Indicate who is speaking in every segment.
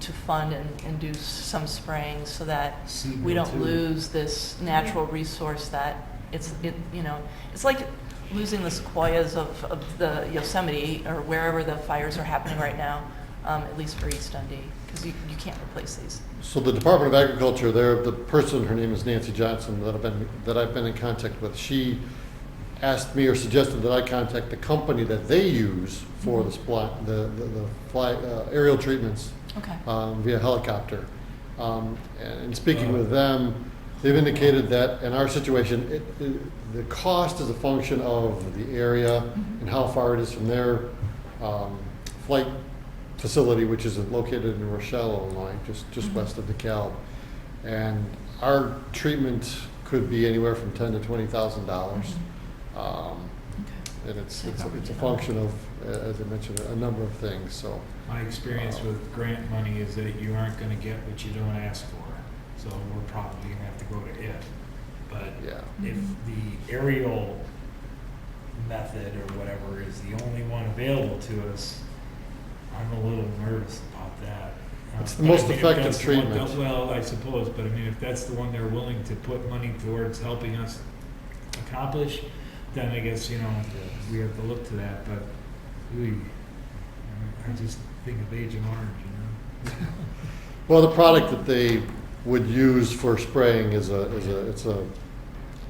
Speaker 1: to fund and, and do some spraying so that we don't lose this natural resource that it's, it, you know, it's like losing the sequoias of, of the Yosemite or wherever the fires are happening right now, um, at least for East Dundee, because you, you can't replace these.
Speaker 2: So the Department of Agriculture, there, the person, her name is Nancy Johnson, that I've been, that I've been in contact with, she asked me or suggested that I contact the company that they use for the supply, the, the the fly, uh, aerial treatments
Speaker 1: Okay.
Speaker 2: um, via helicopter. Um, and and speaking with them, they've indicated that in our situation, it, it, the cost is a function of the area and how far it is from their um, flight facility, which is located in Rochelle, Illinois, just, just
Speaker 1: Mhm.
Speaker 2: west of DeKalb. And our treatment could be anywhere from ten to twenty thousand dollars. Um, and it's, it's, a- it's a function of, uh, as I mentioned, a number of things, so.
Speaker 3: My experience with grant money is that you aren't gonna get what you don't ask for, so we're probably gonna have to go to it. But
Speaker 2: Yeah.
Speaker 3: if the aerial method or whatever is the only one available to us, I'm a little nervous about that. Uh,
Speaker 2: It's the
Speaker 3: but I
Speaker 2: most
Speaker 3: mean, if
Speaker 2: effective
Speaker 3: that's the one that-
Speaker 2: treatment.
Speaker 3: Well, I suppose, but I mean, if that's the one they're willing to put money towards helping us accomplish, then I guess, you know, we have to look to that, but we, I just think of Agent Orange, you
Speaker 2: Well, the product that they would use for spraying is a, is a, it's a,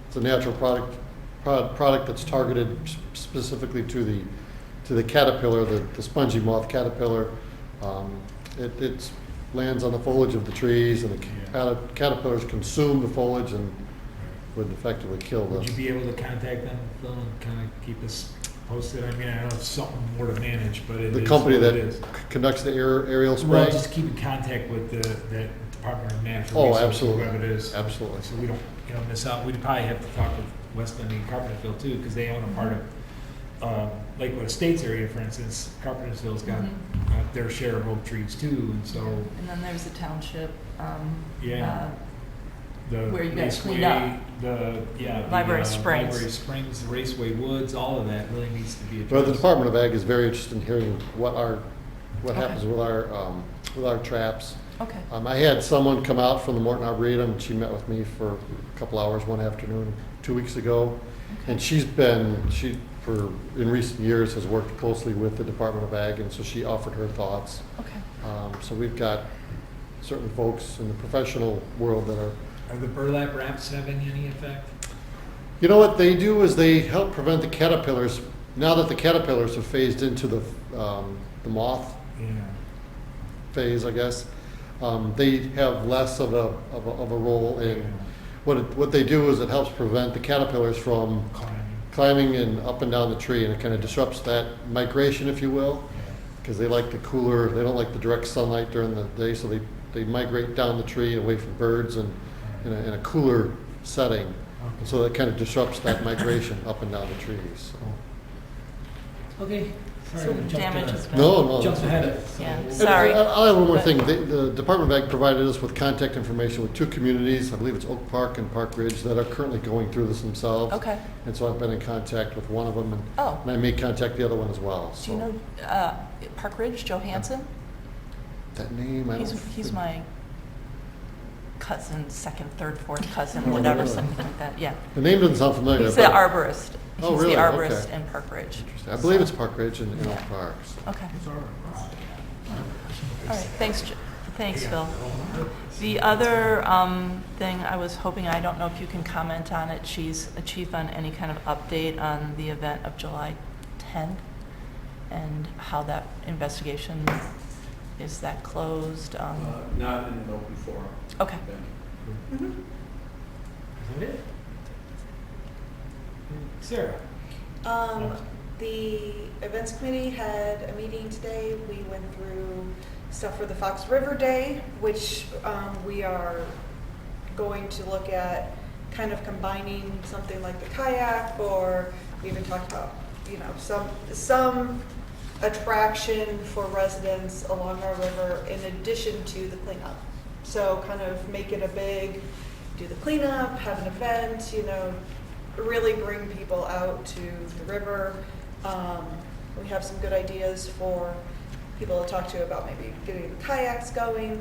Speaker 2: it's a natural product, prod- product that's targeted s- specifically to the, to the caterpillar, the, the spongy moth caterpillar. Um, It, it lands on the foliage of the trees and the ca- caterpillars consume the foliage and
Speaker 3: know?
Speaker 2: would effectively kill the.
Speaker 3: Would you be able to contact them, Phil, and kind of keep us posted? I mean, I know it's something more to manage, but it
Speaker 2: The
Speaker 3: is
Speaker 2: company
Speaker 3: what
Speaker 2: that
Speaker 3: it is.
Speaker 2: c- conducts the aer- aerial
Speaker 3: Well,
Speaker 2: spray?
Speaker 3: just keep in contact with the, the Department of Natural
Speaker 2: Oh,
Speaker 3: Resources,
Speaker 2: absolutely.
Speaker 3: whoever it is.
Speaker 2: Absolutely.
Speaker 3: So we don't, you know, miss out, we'd probably have to talk with Westland and Carpentersville too, because they own a part of, um, Lakewood Estates area, for instance. Carpentersville's got
Speaker 1: Mhm.
Speaker 3: uh, their share of oak trees too, and so
Speaker 1: And then there's the township, um,
Speaker 3: Yeah.
Speaker 1: uh,
Speaker 3: the
Speaker 1: Where you guys
Speaker 3: raceway,
Speaker 1: cleaned up.
Speaker 3: the yeah, the,
Speaker 1: Library
Speaker 3: uh,
Speaker 1: Springs.
Speaker 3: Library Springs, the Raceway Woods, all of that really needs to be addressed.
Speaker 2: Well, the Department of Ag is very interested in hearing what our, what
Speaker 1: Okay.
Speaker 2: happens with our, um, with our traps.
Speaker 1: Okay.
Speaker 2: Um, I had someone come out from the Morton Arboretum, and she met with me for a couple hours one afternoon, two weeks ago. And she's been, she, for, in recent years, has worked closely with the Department of Ag, and so she offered her thoughts.
Speaker 1: Okay.
Speaker 2: Um, so we've got certain folks in the professional world that are,
Speaker 3: Are the burlap wraps having any effect?
Speaker 2: you know what they do is they help prevent the caterpillars, now that the caterpillars have phased into the, um, the moth
Speaker 3: Yeah.
Speaker 2: phase, I guess, um, they have less of a, of a, of a role in, what, it- what they do is it helps prevent the caterpillars from
Speaker 3: Climbing.
Speaker 2: climbing and up and down the tree, and it kind of disrupts that migration, if you will, because they like the cooler, they don't like the direct sunlight during the day, so they, they migrate down the tree away from birds and in a, in a cooler setting.
Speaker 3: Okay.
Speaker 2: So that kind of disrupts that migration up and down the trees.
Speaker 3: Cool. Okay. Sorry,
Speaker 1: So
Speaker 3: we jumped
Speaker 1: damage
Speaker 3: ahead.
Speaker 1: is-
Speaker 2: No, no.
Speaker 3: Jumped
Speaker 2: that's okay.
Speaker 3: ahead of. so
Speaker 1: Yeah,
Speaker 3: we'll-
Speaker 2: And
Speaker 1: Sorry.
Speaker 2: I- I'll add one more
Speaker 1: But-
Speaker 2: thing. The, the Department of Ag provided us with contact information with two communities, I believe it's Oak Park and Park Ridge, that are currently going through this themselves.
Speaker 1: Okay.
Speaker 2: And so I've been in contact with one of them, and,
Speaker 1: Oh.
Speaker 2: and I may contact the other one as well.
Speaker 1: Do
Speaker 2: So
Speaker 1: you know uh, Park Ridge Johansson?
Speaker 2: that name, I don't.
Speaker 1: He's, he's
Speaker 2: think-
Speaker 1: my cousin, second, third, fourth
Speaker 2: Oh,
Speaker 1: cousin, whatever,
Speaker 2: really?
Speaker 1: something like that, yeah.
Speaker 2: The name doesn't sound familiar.
Speaker 1: He's the
Speaker 2: but-
Speaker 1: arborist.
Speaker 2: Oh,
Speaker 1: He's
Speaker 2: really?
Speaker 1: the
Speaker 2: Okay.
Speaker 1: arborist in Park Ridge.
Speaker 2: I believe it's Park Ridge and, and Oak
Speaker 1: Yeah.
Speaker 2: Park. so.
Speaker 1: Okay,
Speaker 3: Sorry.
Speaker 1: all right, thanks, J- thanks,
Speaker 3: Yeah.
Speaker 1: Phil. The other um, thing I was hoping, I don't know if you can comment on it, Chief, Chief, on any kind of update on the event of July 10th and how that investigation, is that closed? Um,
Speaker 4: Uh, Not in an open forum.
Speaker 1: Okay,
Speaker 4: then.
Speaker 5: Mm-hmm.
Speaker 3: Is that it? Sarah?
Speaker 5: Um, the events committee had a meeting today. We went through stuff for the Fox River Day, which, um, we are going to look at kind of combining something like the kayak or we even talked about, you know, some, some attraction for residents along our river in addition to the cleanup. So kind of make it a big, do the cleanup, have an event, you know, really bring people out to the river. Um, we have some good ideas for people to talk to about maybe getting kayaks going,